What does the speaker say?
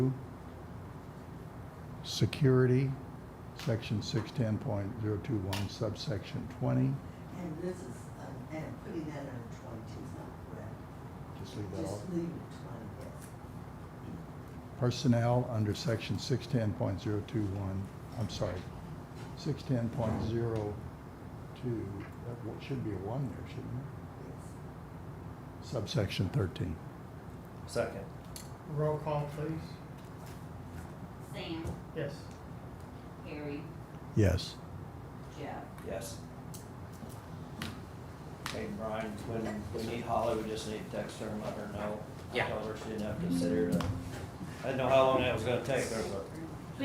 Security, section 610.021 subsection 20. And this is, uh, and putting that under twenty-two is not correct. Just leave that off. Just leave it twenty, yes. Personnel under section 610.021, I'm sorry, 610.02, that w- should be a 1 there, shouldn't it? Yes. Subsection 13. Second. Roll call, please. Sam, Yes. Harry, Yes. Jeff. Yes. Hey, Brian, when we need Holly, we just need to text her and let her know. Yeah. Tell her she didn't have to sit here to, I didn't know how long that was gonna take, there's a